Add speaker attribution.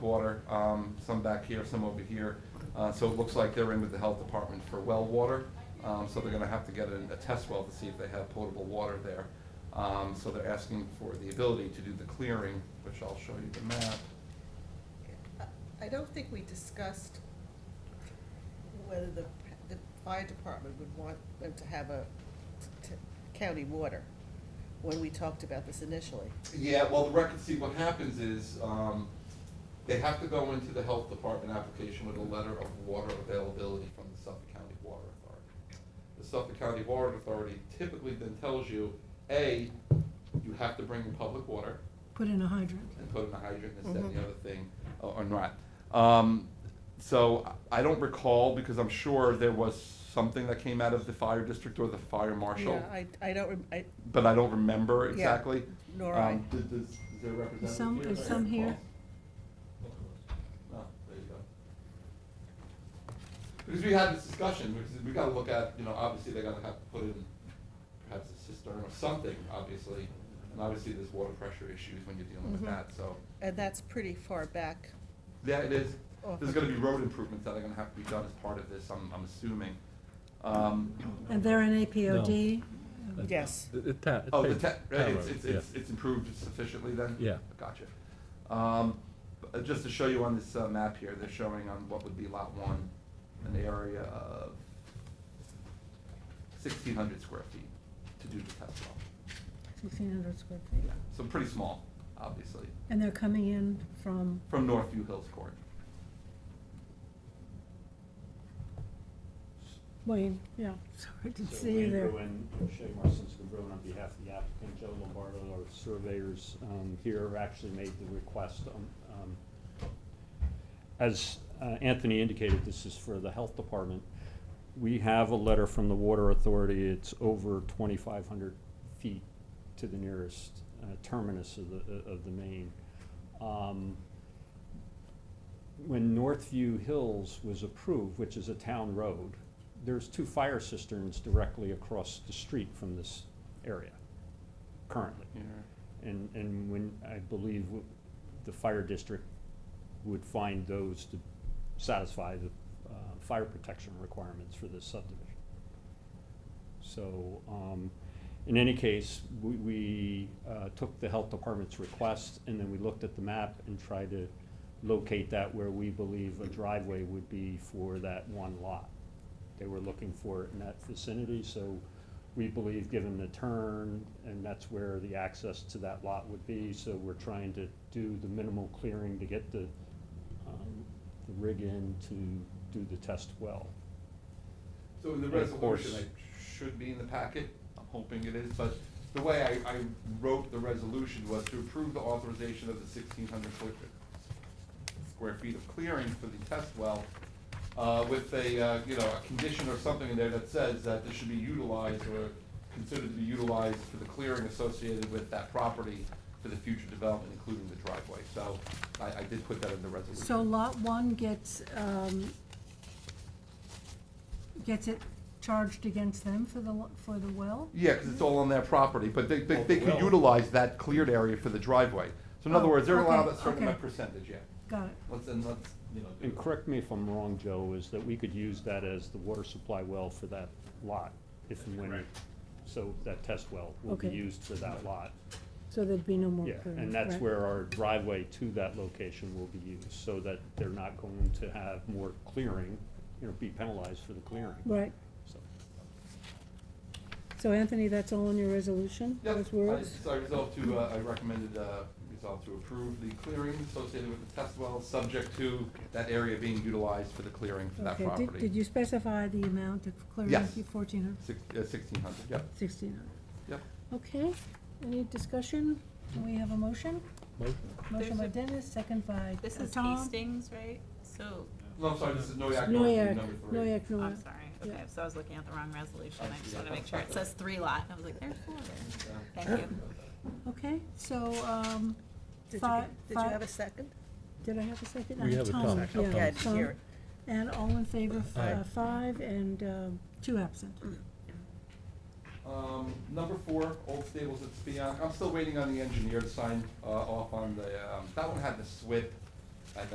Speaker 1: water, um, some back here, some over here. Uh, so it looks like they're in with the health department for well water. Um, so they're gonna have to get a, a test well to see if they have potable water there. Um, so they're asking for the ability to do the clearing, which I'll show you the map.
Speaker 2: I don't think we discussed whether the, the fire department would want them to have a t- t- county water when we talked about this initially.
Speaker 1: Yeah, well, the record, see, what happens is, um, they have to go into the health department application with a letter of water availability from the Suffolk County Water Authority. The Suffolk County Water Authority typically then tells you, A, you have to bring your public water
Speaker 3: Put in a hydrant.
Speaker 1: and put in a hydrant instead of the
Speaker 2: Mhm.
Speaker 1: other thing, or or not. Um, so I I don't recall, because I'm sure there was something that came out of the fire district or the fire marshal,
Speaker 2: Yeah, I, I don't, rem- I,
Speaker 1: but I don't remember
Speaker 2: Yeah.
Speaker 1: exactly.
Speaker 2: nor I.
Speaker 1: Um, does- does- is there a representative
Speaker 3: Some-
Speaker 1: here?
Speaker 3: is some here?
Speaker 1: No, Oh, there you go. Because we had this discussion, because we gotta look at, you know, obviously they're gonna have to put in perhaps a cistern or something, obviously. And obviously there's water pressure issues when you're dealing with
Speaker 2: Mhm.
Speaker 1: that, so.
Speaker 2: And that's pretty far back.
Speaker 1: Yeah, it is.
Speaker 2: Oh.
Speaker 1: There's gonna be road improvements that are gonna have to be done as part of this, I'm, I'm assuming. Um,
Speaker 3: And they're in APOD?
Speaker 4: Uh,
Speaker 2: Yes.
Speaker 4: it- it ta- it
Speaker 1: Oh, the
Speaker 4: paved
Speaker 1: te- right,
Speaker 4: town
Speaker 1: it's,
Speaker 4: roads,
Speaker 1: it's,
Speaker 4: yeah.
Speaker 1: it's, it's improved sufficiently then?
Speaker 4: Yeah.
Speaker 1: Gotcha. Um, uh, just to show you on this, uh, map here, they're showing on what would be lot one, an area of sixteen hundred square feet to do the test well.
Speaker 3: Sixteen hundred square feet.
Speaker 1: So pretty small, obviously,
Speaker 3: And they're coming in from,
Speaker 1: from Northview Hills Court.
Speaker 3: Wayne, yeah, sorry to see you
Speaker 5: So
Speaker 3: there.
Speaker 5: Wayne Bruin, Shea Marcinson Bruin on behalf of the applicant, Joe Lombardo, our surveyors um, here actually made the request. um, um, As uh, Anthony indicated, this is for the health department. We have a letter from the water authority, it's over twenty-five hundred feet to the nearest uh, terminus of the, uh, of the main. Um, when Northview Hills was approved, which is a town road, there's two fire cisterns directly across the street from this area currently. And, and when, I believe w- the fire district would find those to satisfy the, uh, fire protection requirements for this subdivision. So, um, in any case, we, we, uh, took the health department's request and then we looked at the map and tried to locate that where we believe a driveway would be for that one lot. They were looking for it in that vicinity, so we believe, given the turn, and that's where the access to that lot would be, so we're trying to do the minimal clearing to get the, um, the rig in to do the test well.
Speaker 1: So in the
Speaker 5: And of course-
Speaker 1: resolution, it should be in the packet, I'm hoping it is, but the way I, I wrote the resolution was to approve the authorization of the sixteen hundred foot square feet of clearing for the test well, uh, with a, uh, you know, a condition or something in there that says that this should be utilized or considered to be utilized for the clearing associated with that property for the future development, including the driveway, so I, I did put that in the resolution.
Speaker 3: So lot one gets, um, gets it charged against them for the, lo- for the well?
Speaker 1: Yeah, because it's all on their property, but they, they,
Speaker 5: Oh,
Speaker 1: they could
Speaker 5: well.
Speaker 1: utilize that cleared area for the driveway. So in other
Speaker 3: Oh,
Speaker 1: words, they're allowed
Speaker 3: okay,
Speaker 1: a certain
Speaker 3: okay.
Speaker 1: amount percentage, yeah.
Speaker 3: Got it.
Speaker 1: Let's, and let's, you know. do
Speaker 5: And
Speaker 1: it.
Speaker 5: correct me if I'm wrong, Joe, is that we could use that as the water supply well for that lot, if and when. So that test well will be
Speaker 3: Okay.
Speaker 5: used for that lot.
Speaker 3: So there'd be no more
Speaker 5: Yeah,
Speaker 3: clearing.
Speaker 5: and that's
Speaker 3: right.
Speaker 5: where our driveway to that location will be used, so that they're not going to have more clearing, you know, be penalized for the clearing.
Speaker 3: Right.
Speaker 5: So,
Speaker 3: So Anthony, that's all in your resolution?
Speaker 1: Yep,
Speaker 3: Those
Speaker 1: I
Speaker 3: words?
Speaker 1: just- I resolved to, uh, I recommended, uh, resolve to approve the clearing associated with the test well, subject to that area being utilized for the clearing for that
Speaker 3: Okay, did-
Speaker 1: property.
Speaker 3: Did you specify the amount of clearing?
Speaker 1: Yes.
Speaker 3: Fourteen hundred?
Speaker 1: Six, uh, sixteen hundred, yep,
Speaker 3: Sixteen hundred.
Speaker 1: yep.
Speaker 3: Okay, any discussion? Do we have a motion?
Speaker 4: Motion?
Speaker 3: Motion by
Speaker 6: There's
Speaker 3: Dennis, second by
Speaker 6: This
Speaker 3: uh,
Speaker 6: is
Speaker 3: Tom.
Speaker 6: Hastings, right? So,
Speaker 1: No, I'm sorry, this is Noyak Northview,
Speaker 3: Noyak,
Speaker 1: number three.
Speaker 3: Noyak,
Speaker 6: I'm
Speaker 3: Noyak.
Speaker 6: sorry,
Speaker 3: Yeah.
Speaker 6: okay, so I was looking at the wrong resolution, I just
Speaker 1: Yeah.
Speaker 6: wanna make sure, it says three lot, and I was like, there's four there.
Speaker 1: Yeah.
Speaker 6: Thank you.
Speaker 3: Okay, so, um,
Speaker 2: Did you,
Speaker 3: Fi-
Speaker 2: did you
Speaker 3: fi-
Speaker 2: have a second?
Speaker 3: did I have a second?
Speaker 4: We
Speaker 3: Uh,
Speaker 4: have a Tom.
Speaker 3: yeah,
Speaker 2: Okay, I didn't
Speaker 3: Tom.
Speaker 2: hear it.
Speaker 3: And all in favor, f-
Speaker 4: Aye.
Speaker 3: uh, five, and, um, two absent.
Speaker 2: Mm.
Speaker 1: Um, number four, Old Stables at Spion, I'm still waiting on the engineer to sign, uh, off on the, um, that one had the SWIP